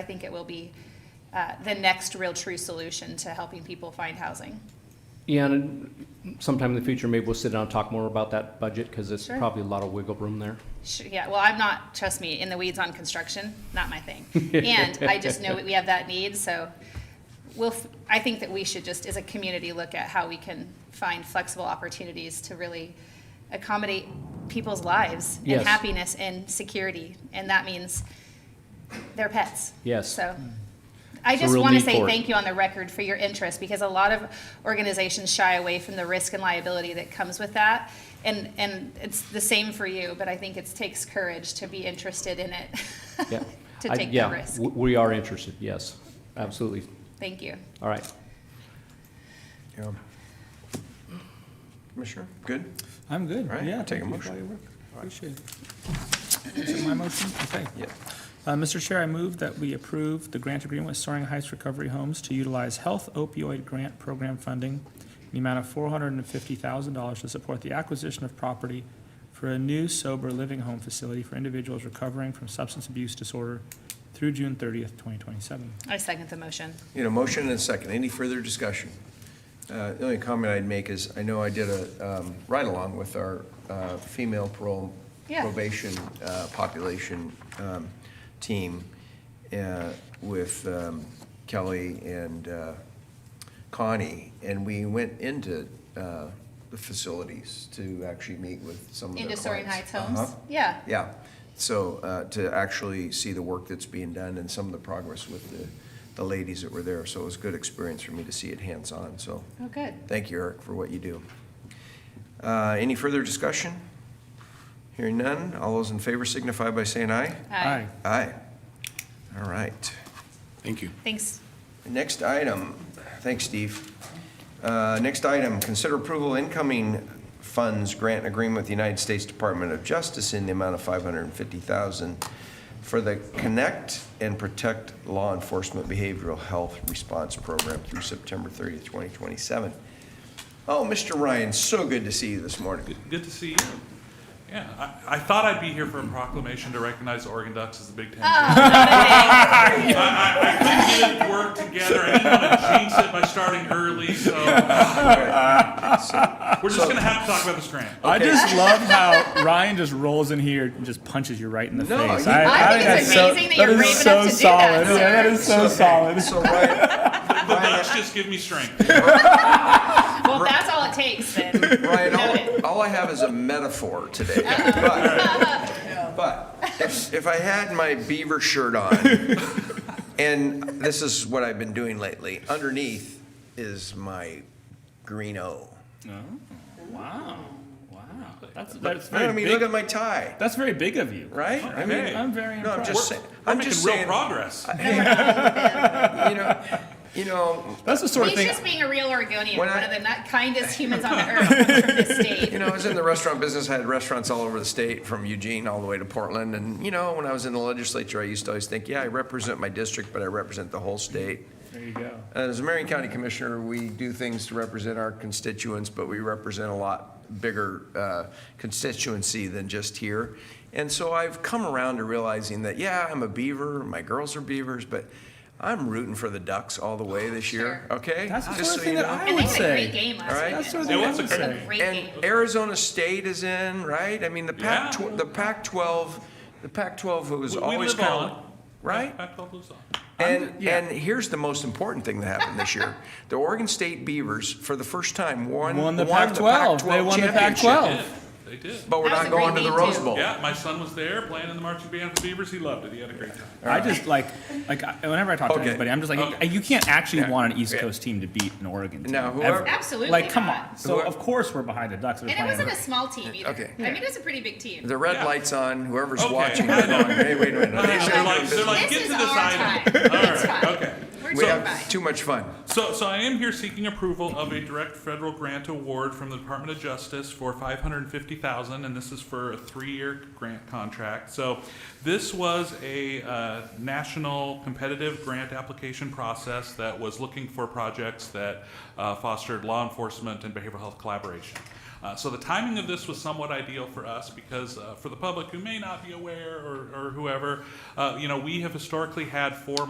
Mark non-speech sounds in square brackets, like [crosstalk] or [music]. I think it will be uh, the next real true solution to helping people find housing. Yeah, and sometime in the future, maybe we'll sit down and talk more about that budget, because there's Sure. probably a lot of wiggle [laughs] room there. Sh- Yeah, well, I'm not, trust me, in the weeds on construction, not my [laughs] thing. And I just know that we have that need, so we'll, f- I think that we should just, as a community, look at how we can find flexible opportunities to really accommodate people's lives and Yes. happiness and security, and that means their pets. Yes. So I It's a just real want to need say for it. thank you on the record for your interest because a lot of organizations shy away from the risk and liability that comes with that. And, and it's the same for you, but I think it takes courage to be interested in it, Yeah. [laughs] to I- take the yeah, risk. w- We are interested, yes, absolutely. Thank you. All right. Yeah. Commissioner, good? I'm good. All right, Yeah, take a thank you motion. for all your work. Appreciate it. Is it my motion? Okay. Yeah. Uh, Mr. Chair, I move that we approve the grant agreement with Soaring Heights Recovery Homes to utilize health opioid grant program funding in the amount of four hundred and fifty thousand dollars to support the acquisition of property for a new sober living home facility for individuals recovering from substance abuse disorder through June thirtieth, twenty twenty-seven. I second the motion. You know, motion and a second. Any further discussion? Uh, The only comment I'd make is, I know I did a um, ride-along with our uh, female parole Yeah. probation uh, population um, team uh, with um, Kelly and uh, Connie, and we went into uh, the facilities to actually meet with some of their Into Soaring clients. Heights Homes? Uh-huh. Yeah. Yeah, so uh, to actually see the work that's being done and some of the progress with the, the ladies that were there, so it was a good experience for me to see it hands-on, so Oh, good. thank you, Eric, for what you do. Uh, Any further discussion? Hearing none, all those in favor signify by saying aye. Aye. Aye. All right. Thank you. Thanks. Next item, thanks, Steve. Uh, Next item, consider approval incoming funds grant agreement with the United States Department of Justice in the amount of 550000 for the Connect and Protect Law Enforcement Behavioral Health Response Program through September 30th, 2027. Oh, Mr. Ryan, so good to see you this morning. Good- Good to see you. Yeah, I, I thought I'd be here for a proclamation to recognize Oregon Ducks as the Big Ten. champions. I, I, I couldn't get it to work together. I didn't want to jinx it by starting [laughs] early, so ah, we're just gonna have to talk about this grant. I just [laughs] love how Ryan just rolls in here and just punches you right in the No, face. he- I think that's it's so- amazing that you're is brave so enough to do solid. that, sir. Yeah, that is so solid. So Ryan, The Ducks just give me strength. Well, if that's all it takes then. Ryan, Noted. all, all I have is a metaphor today. But, [laughs] but if, if I had my beaver shirt on, and this is what I've been doing lately, underneath is my green O. Wow, wow. That's, that's I very mean, look big. at my tie, That's very big of you. right? I mean, Hey. I'm very no, I'm impressed. just We're- saying, We're I'm just making real saying, progress. you know, you know, That's the sort of He's thing. just being a real Oregonian, When one I- of the not- kindest humans on the earth comes from this state. You know, I was in the restaurant business. I had restaurants all over the state, from Eugene all the way to Portland. And, you know, when I was in the legislature, I used to always think, yeah, I represent my district, but I represent the whole state. There you go. Uh, As a Marion County Commissioner, we do things to represent our constituents, but we represent a lot bigger uh, constituency than just here. And so I've come around to realizing that, yeah, I'm a beaver, my girls are beavers, but I'm rooting for the Ducks all the way this year, okay? That's the Just sort of so thing you that know. I And they would had a great say. game All last right. weekend. That's sort of It thing I was a would great- say. A great game. And Arizona State is in, right? I mean, the Pac, Yeah. tw- the Pac-12, the Pac-12 was We- we always live kind on it. of, right? Back to Blues on. And, yeah. and here's the most important thing that happened this year. [laughs] The Oregon State Beavers, for the first time, won, Won the Pac-12 Pac-12. They won the championship. They Pac-12. did. They did. But we're That was not a great going to the game, Rose too. Bowl. Yeah, my son was there playing in the marching band for the Beavers. He loved it. He had a great time. I just like, like I- whenever I talk to Okay. anybody, I'm just like, Okay. you can't actually Yeah. want an East Yeah. Coast team to beat an Oregon team. No, ever. whoever- Absolutely Like, come not. on. So Whoever- of course we're behind the Ducks. And it wasn't a small team either. Okay. I mean, it was a pretty big team. The red Yeah. light's on, whoever's Okay. watching, they're going, hey, wait a minute. They're They're doing like, they're like, This get is to this our item. time. All It's right, fine. okay. We're We doing have fine. too much fun. So, so I am here seeking approval of a direct federal grant award from the Department of Justice for five hundred and fifty thousand, and this is for a three-year grant contract. So, this was a uh, national competitive grant application process that was looking for projects that uh, fostered law enforcement and behavioral health collaboration. Uh, so the timing of this was somewhat ideal for us because uh, for the public who may not be aware or, or whoever, uh, you know, we have historically had four